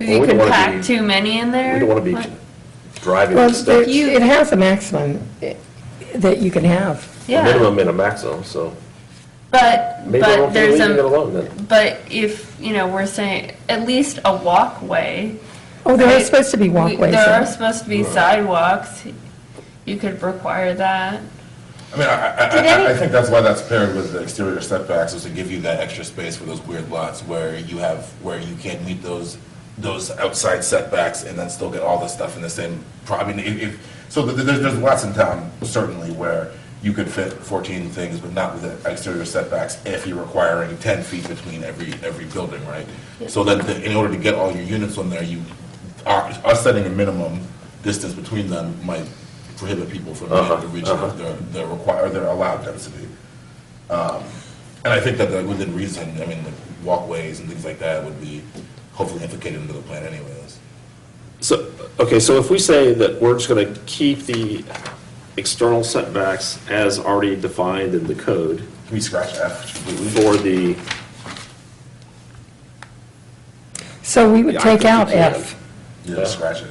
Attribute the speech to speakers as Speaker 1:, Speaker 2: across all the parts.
Speaker 1: Well,
Speaker 2: You
Speaker 1: we don't
Speaker 2: could
Speaker 1: wanna
Speaker 2: pack
Speaker 1: be-
Speaker 2: too many in there?
Speaker 1: We don't want to
Speaker 2: What?
Speaker 1: be driving
Speaker 3: Well,
Speaker 1: stuff,
Speaker 3: there- it has a maximum eh, that you can have.
Speaker 1: a
Speaker 2: Yeah,
Speaker 1: minimum and a maximum, so
Speaker 2: but,
Speaker 1: maybe we'll
Speaker 2: but
Speaker 1: be leaving
Speaker 2: there's
Speaker 1: it
Speaker 2: a,
Speaker 1: alone then.
Speaker 2: but if, you know, we're saying, at least a walkway.
Speaker 3: Oh, there are
Speaker 2: right?
Speaker 3: supposed to be
Speaker 2: We-
Speaker 3: walkways.
Speaker 2: There
Speaker 3: there.
Speaker 2: are supposed to be sidewalks. You could require that.
Speaker 4: I mean, I- I,
Speaker 2: Did
Speaker 4: I, I, I
Speaker 2: any-
Speaker 4: think that's why that's paired with the exterior setbacks, is to give you that extra space for those weird lots where you have, where you can meet those, those outside setbacks and then still get all the stuff in the same, pro- I mean, if, if, so th- th- there's, there's lots in town certainly where you could fit fourteen things, but not with the exterior setbacks if you're requiring ten feet between every, every building, right? So that, the- in order to get all your units on there, you, are- us setting a minimum distance between them might prohibit people from
Speaker 1: Uh-huh,
Speaker 4: being the region
Speaker 1: uh-huh.
Speaker 4: of their, their required, their allowed density. Um, And I think that the- within reason, I mean, like walkways and things like that would be hopefully implicated into the plan anyways.
Speaker 1: So, okay, so if we say that we're just going to keep the external setbacks as already defined in the code
Speaker 4: Can we scratch F completely?
Speaker 1: for the,
Speaker 3: So we would
Speaker 1: Yeah, I
Speaker 3: take
Speaker 1: think
Speaker 3: out
Speaker 1: you can.
Speaker 3: F.
Speaker 4: Yeah, scratch it.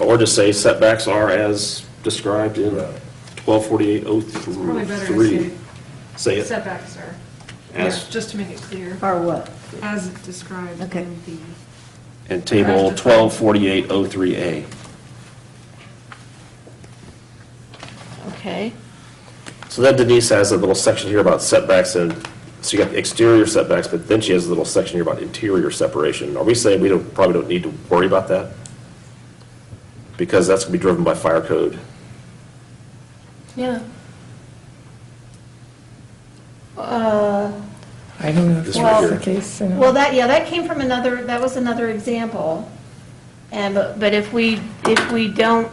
Speaker 1: or just say setbacks are as described in
Speaker 4: Right.
Speaker 1: 1248.03. Say it
Speaker 5: Setbacks are,
Speaker 1: as,
Speaker 5: just to make it clear,
Speaker 6: Or what?
Speaker 5: as described
Speaker 6: Okay.
Speaker 5: in the,
Speaker 1: and table 1248.03A.
Speaker 2: Okay.
Speaker 1: So then Denise has a little section here about setbacks and, so you got the exterior setbacks, but then she has a little section here about interior separation. Are we saying we don't, probably don't need to worry about that? Because that's gonna be driven by fire code.
Speaker 2: Yeah.
Speaker 3: I don't know if
Speaker 1: This
Speaker 3: that's
Speaker 1: right
Speaker 3: the
Speaker 1: here.
Speaker 3: case. you know.
Speaker 6: Uh, Well, that, yeah, that came from another, that was another example. And, but but if we, if we don't,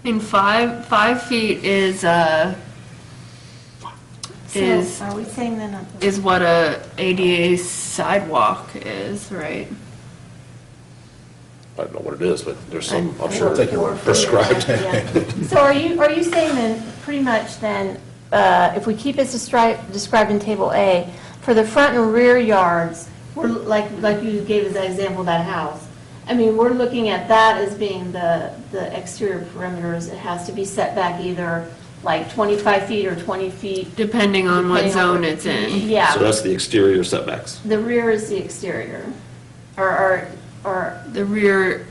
Speaker 2: I mean, five, five feet is, uh,
Speaker 6: so
Speaker 2: is,
Speaker 6: are we saying then? uh,
Speaker 2: is what a ADA sidewalk is, right?
Speaker 1: I don't know what it is, but there's some, I'm
Speaker 4: Sure,
Speaker 1: sure,
Speaker 4: take your word for it.
Speaker 1: prescribed.
Speaker 6: yeah. So are you, are you saying then, pretty much then, uh, if we keep it destri- described in Table A, for the front and rear yards, we're, like, like you gave as an example, of that house, I mean, we're looking at that as being the, the exterior perimeters, it has to be set back either like 25 feet or 20 feet
Speaker 2: Depending on what
Speaker 6: Depending on-
Speaker 2: zone it's in.
Speaker 1: So
Speaker 6: Yeah,
Speaker 1: that's the exterior setbacks.
Speaker 6: the rear is the exterior, or, or, or,
Speaker 2: The rear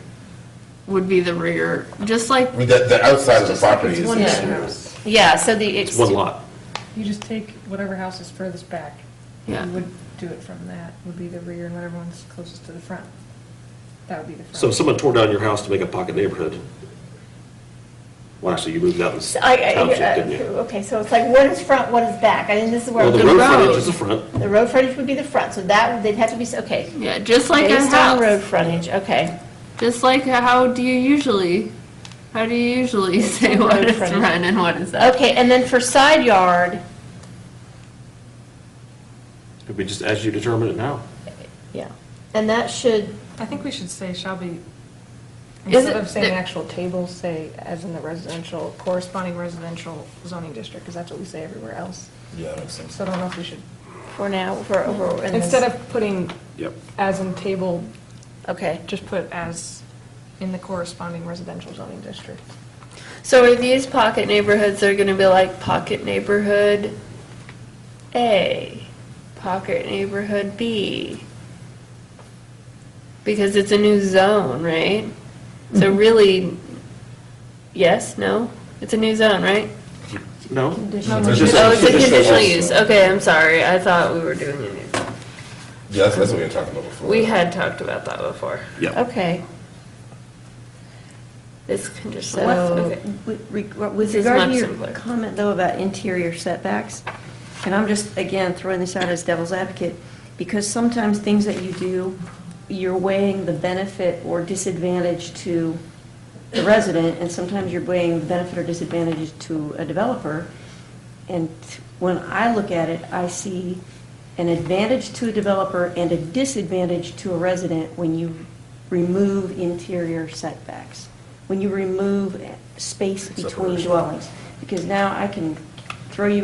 Speaker 2: would be the rear, just like,
Speaker 4: I mean, the, the outside of the
Speaker 5: just like
Speaker 4: property
Speaker 5: it's
Speaker 4: is
Speaker 5: one
Speaker 6: Yeah.
Speaker 4: exterior.
Speaker 5: house.
Speaker 6: yeah, so the.
Speaker 1: It's one lot.
Speaker 5: You just take whatever house is furthest back.
Speaker 2: Yeah.
Speaker 5: You would do it from that, would be the rear, and whatever one's closest to the front. That would be the front.
Speaker 1: So if someone tore down your house to make a pocket neighborhood, well, actually, you moved out in
Speaker 6: I, I, uh,
Speaker 1: township, didn't you?
Speaker 6: okay, so it's like, what is front, what is back? I think this is where.
Speaker 1: Well, the
Speaker 2: the
Speaker 1: road
Speaker 2: road.
Speaker 1: frontage is the front.
Speaker 6: The road frontage would be the front, so that, they'd have to be, s- okay.
Speaker 2: yeah, just like a
Speaker 6: Based on road
Speaker 2: house.
Speaker 6: frontage, okay.
Speaker 2: Just like how do you usually, how do you usually say
Speaker 6: on
Speaker 2: what
Speaker 6: road
Speaker 2: is
Speaker 6: frontage.
Speaker 2: front and what is that?
Speaker 6: Okay, and then for side yard,
Speaker 1: Could we just, as you determine it now?
Speaker 6: yeah, and that should,
Speaker 5: I think we should say shall be,
Speaker 2: Is
Speaker 5: instead
Speaker 2: it-
Speaker 5: of saying
Speaker 2: there-
Speaker 5: actual table, say as in the residential, corresponding residential zoning district, because that's what we say everywhere else.
Speaker 4: Yeah, that makes sense.
Speaker 5: So I don't know if we should,
Speaker 6: for now, for over. in this-
Speaker 5: instead of putting
Speaker 1: Yep.
Speaker 5: as in table,
Speaker 6: Okay,
Speaker 5: just put as in the corresponding residential zoning district.
Speaker 2: So are these pocket neighborhoods, they're gonna be like pocket neighborhood A, pocket neighborhood B? Because it's a new zone, right? So really, yes, no? It's a new zone, right?
Speaker 1: No?
Speaker 2: Oh, it's a conditional
Speaker 1: use.
Speaker 2: use, okay, I'm sorry, I thought we were doing a new zone.
Speaker 4: Yeah, that's, that's what we were talking about before.
Speaker 2: We had talked about that before.
Speaker 1: Yeah.
Speaker 6: okay,
Speaker 2: This conditional,
Speaker 7: So,
Speaker 2: okay.
Speaker 7: with reg-
Speaker 2: This
Speaker 7: with
Speaker 2: is
Speaker 7: regard to
Speaker 2: much
Speaker 7: your
Speaker 2: simpler.
Speaker 7: comment, though, about interior setbacks, and I'm just, again, throwing this out as devil's advocate, because sometimes things that you do, you're weighing the benefit or disadvantage to the resident, and sometimes you're weighing the benefit or disadvantage to a developer. And when I look at it, I see an advantage to a developer and a disadvantage to a resident when you remove interior setbacks, when you remove space between
Speaker 4: Separation.
Speaker 7: dwellings. Because now I can throw you